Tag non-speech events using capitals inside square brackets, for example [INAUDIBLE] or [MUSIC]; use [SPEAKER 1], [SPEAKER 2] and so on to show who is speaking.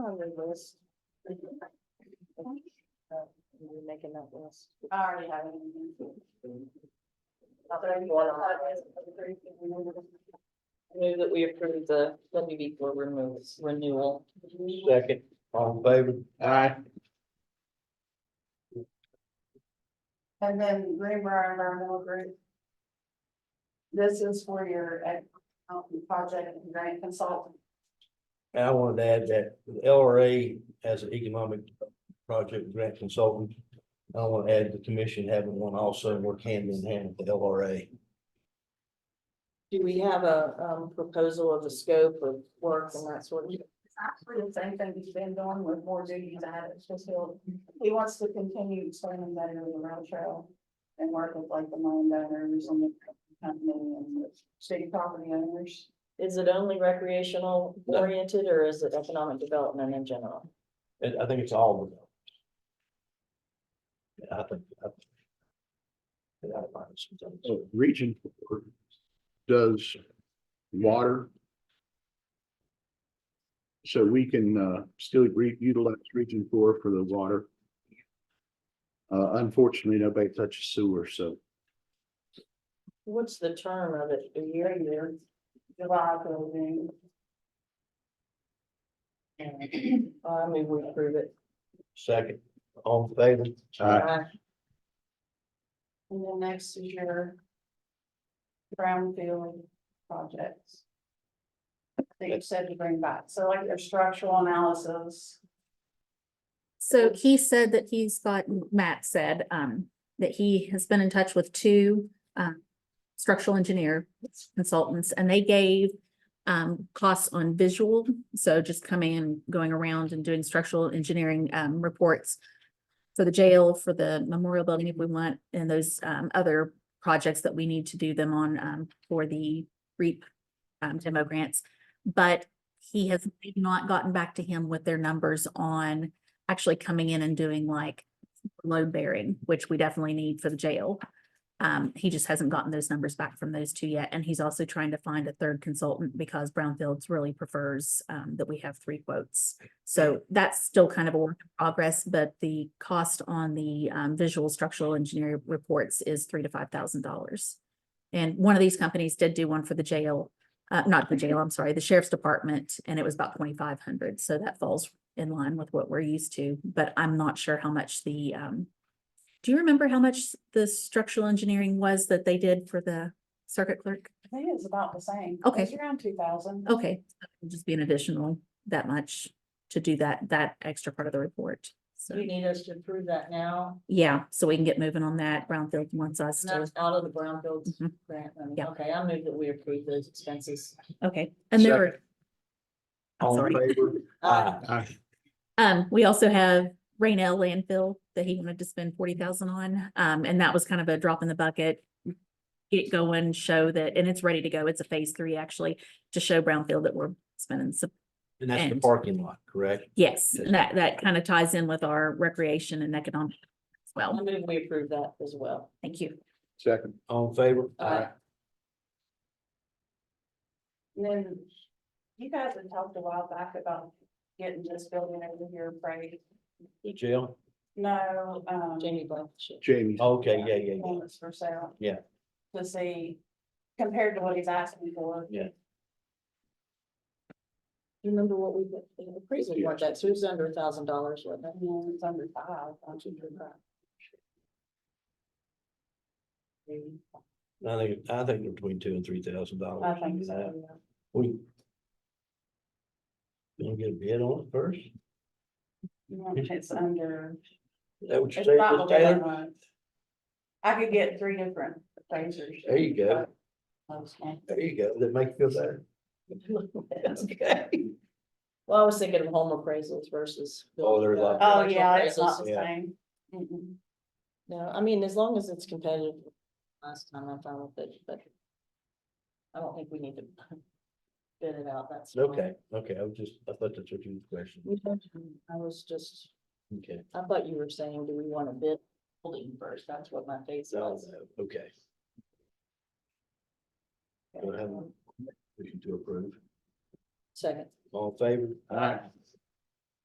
[SPEAKER 1] list? You're making that list.
[SPEAKER 2] I already have it.
[SPEAKER 1] Not that I want to- I Move that we approve the WB four removes renewal.
[SPEAKER 3] Second, all in favor? Aye.
[SPEAKER 2] And then Greenbrier Environmental Group. This is for your, uh, project and grant consultant.
[SPEAKER 3] And I wanted to add that the LRA as an economic project grant consultant. I want to add the commission having one also and work hand in hand with the LRA.
[SPEAKER 1] Do we have a um proposal of the scope of work and that sort of?
[SPEAKER 2] It's actually the same thing he's been doing with more duties added, it's just he'll, he wants to continue expanding that area around trail. And work with like the landowners and the company and the city property owners.
[SPEAKER 1] Is it only recreational oriented or is it economic development in general?
[SPEAKER 3] And I think it's all of them. Yeah, I think. I- yeah, I find this sometimes.
[SPEAKER 4] uh, region four does water. So we can uh still re- utilize region four for the water. Uh, unfortunately, nobody touches sewer, so
[SPEAKER 1] What's the term of it? A year, year?
[SPEAKER 2] July
[SPEAKER 1] [CLEARS THROAT]
[SPEAKER 2] building.
[SPEAKER 1] I mean, we approve it.
[SPEAKER 3] Second, all in favor?
[SPEAKER 4] Aye.
[SPEAKER 2] And then next is your. Brownfield projects. That you said to bring back, so like your structural analysis.
[SPEAKER 5] So he said that he's got, Matt said, um, that he has been in touch with two, um, structural engineer consultants and they gave, um, costs on visual. So just coming and going around and doing structural engineering, um, reports for the jail, for the memorial building if we want, and those, um, other projects that we need to do them on, um, for the REAP, um, demo grants. But he has not gotten back to him with their numbers on, actually coming in and doing like load bearing, which we definitely need for the jail. Um, he just hasn't gotten those numbers back from those two yet, and he's also trying to find a third consultant because Brownfields really prefers um that we have three quotes. So that's still kind of a work in progress, but the cost on the um visual structural engineering reports is three to five thousand dollars. And one of these companies did do one for the jail, uh, not the jail, I'm sorry, the sheriff's department, and it was about twenty-five hundred, so that falls in line with what we're used to, but I'm not sure how much the, um, do you remember how much the structural engineering was that they did for the circuit clerk?
[SPEAKER 2] I think it's about the same.
[SPEAKER 5] Okay. Oh,
[SPEAKER 2] It's around two thousand.
[SPEAKER 5] Okay, it'll just be an additional that much to do that, that extra part of the report.
[SPEAKER 1] Do you
[SPEAKER 5] So,
[SPEAKER 1] need us to approve that now?
[SPEAKER 5] yeah, so we can get moving on that. Brownfield wants us
[SPEAKER 1] And
[SPEAKER 5] to,
[SPEAKER 1] that's out of the brownfield
[SPEAKER 5] Mhm.
[SPEAKER 1] grant money.
[SPEAKER 5] Yeah.
[SPEAKER 1] Okay, I move that we approve those expenses.
[SPEAKER 5] okay, and there were. I'm
[SPEAKER 3] All in
[SPEAKER 5] sorry.
[SPEAKER 3] favor?
[SPEAKER 1] Uh,
[SPEAKER 4] I
[SPEAKER 5] Um, we also have Rainell landfill that he wanted to spend forty thousand on, um, and that was kind of a drop in the bucket. Get it going, show that, and it's ready to go. It's a phase three actually, to show Brownfield that we're spending some,
[SPEAKER 3] And that's the
[SPEAKER 5] And-
[SPEAKER 3] parking lot, correct?
[SPEAKER 5] yes, and that, that kind of ties in with our recreation and economic as
[SPEAKER 1] I
[SPEAKER 5] well.
[SPEAKER 1] move we approve that as well.
[SPEAKER 5] Thank you.
[SPEAKER 4] second,
[SPEAKER 3] All in favor?
[SPEAKER 1] Aye.
[SPEAKER 2] And then you guys had talked a while back about getting this building over here appraised.
[SPEAKER 3] Jill,
[SPEAKER 2] No, um.
[SPEAKER 1] Jamie Blankenship.
[SPEAKER 4] Jamie,
[SPEAKER 3] okay, yeah, yeah, yeah.
[SPEAKER 2] Homes for sale.
[SPEAKER 3] Yeah.
[SPEAKER 2] To see compared to what he's asking for.
[SPEAKER 1] You remember what we, the appraisal
[SPEAKER 4] Yeah.
[SPEAKER 1] was that, so it was under a thousand dollars, wasn't it?
[SPEAKER 2] And then it's under five, I'm sure you're right.
[SPEAKER 3] I think, I think they're between two and three thousand dollars.
[SPEAKER 2] I think so, yeah.
[SPEAKER 3] We. Gonna get a bid on it first? Is
[SPEAKER 2] Yeah, It's under,
[SPEAKER 3] That what you're
[SPEAKER 2] it's
[SPEAKER 3] saying,
[SPEAKER 2] not
[SPEAKER 3] Miss
[SPEAKER 2] the
[SPEAKER 3] Taylor?
[SPEAKER 2] one month. I could get three different appraisers. Oh,
[SPEAKER 3] There you go,
[SPEAKER 2] Okay.
[SPEAKER 3] there you go, that make you feel better.
[SPEAKER 1] Okay. Well, I was thinking of home appraisals versus.
[SPEAKER 3] Oh, they're
[SPEAKER 1] building, uh,
[SPEAKER 3] like-
[SPEAKER 2] Oh,
[SPEAKER 1] commercial
[SPEAKER 2] yeah, it's
[SPEAKER 1] appraisals.
[SPEAKER 2] not the
[SPEAKER 3] Yeah.
[SPEAKER 2] same. Mm-mm.
[SPEAKER 1] No, I mean, as long as it's competitive, last time I found it, but. I don't think we need to. Bid it out, that's. fine.
[SPEAKER 3] Okay, okay, I was just, I thought that's what you was questioning,
[SPEAKER 1] We don't- I was just,
[SPEAKER 3] okay.
[SPEAKER 1] I thought you were saying, do we want to bid building first? That's what my face
[SPEAKER 3] No,
[SPEAKER 1] was.
[SPEAKER 3] no, okay, no, I haven't. we can do approve,
[SPEAKER 1] Second.
[SPEAKER 3] all in favor?
[SPEAKER 1] Aye.